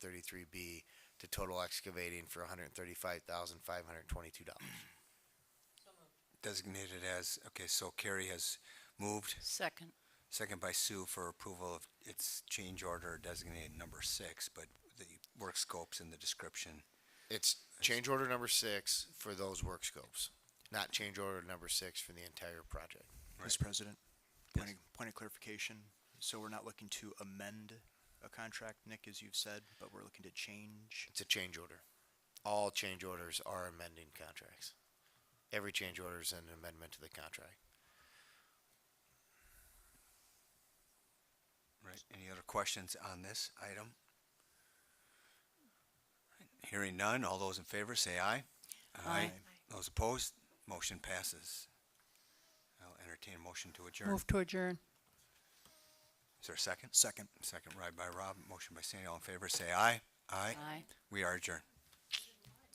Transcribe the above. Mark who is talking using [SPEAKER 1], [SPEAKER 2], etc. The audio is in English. [SPEAKER 1] thirty-three B to total excavating for hundred and thirty-five thousand, five hundred and twenty-two dollars.
[SPEAKER 2] designated as, okay, so Carrie has moved,
[SPEAKER 3] Second.
[SPEAKER 2] second by Sue for approval of its change order designated number six, but the work scopes in the description.
[SPEAKER 1] It's change order number six for those work scopes, not change order number six for the entire project.
[SPEAKER 4] Mr. President, point of, point of clarification. So we're not looking to amend a contract, Nick, as you've said, but we're looking to change.
[SPEAKER 1] It's a change order. All change orders are amending contracts. Every change order is an amendment to the contract.
[SPEAKER 2] Right. Any other questions on this item? Hearing none, all those in favor say aye.
[SPEAKER 3] Aye.
[SPEAKER 2] Those opposed, motion passes. I'll entertain a motion to adjourn.
[SPEAKER 3] Move to adjourn.
[SPEAKER 2] Is there a second?
[SPEAKER 4] Second.
[SPEAKER 2] Second right by Rob, motion by Sandy, all in favor say aye. Aye.
[SPEAKER 3] Aye.
[SPEAKER 2] We are adjourned.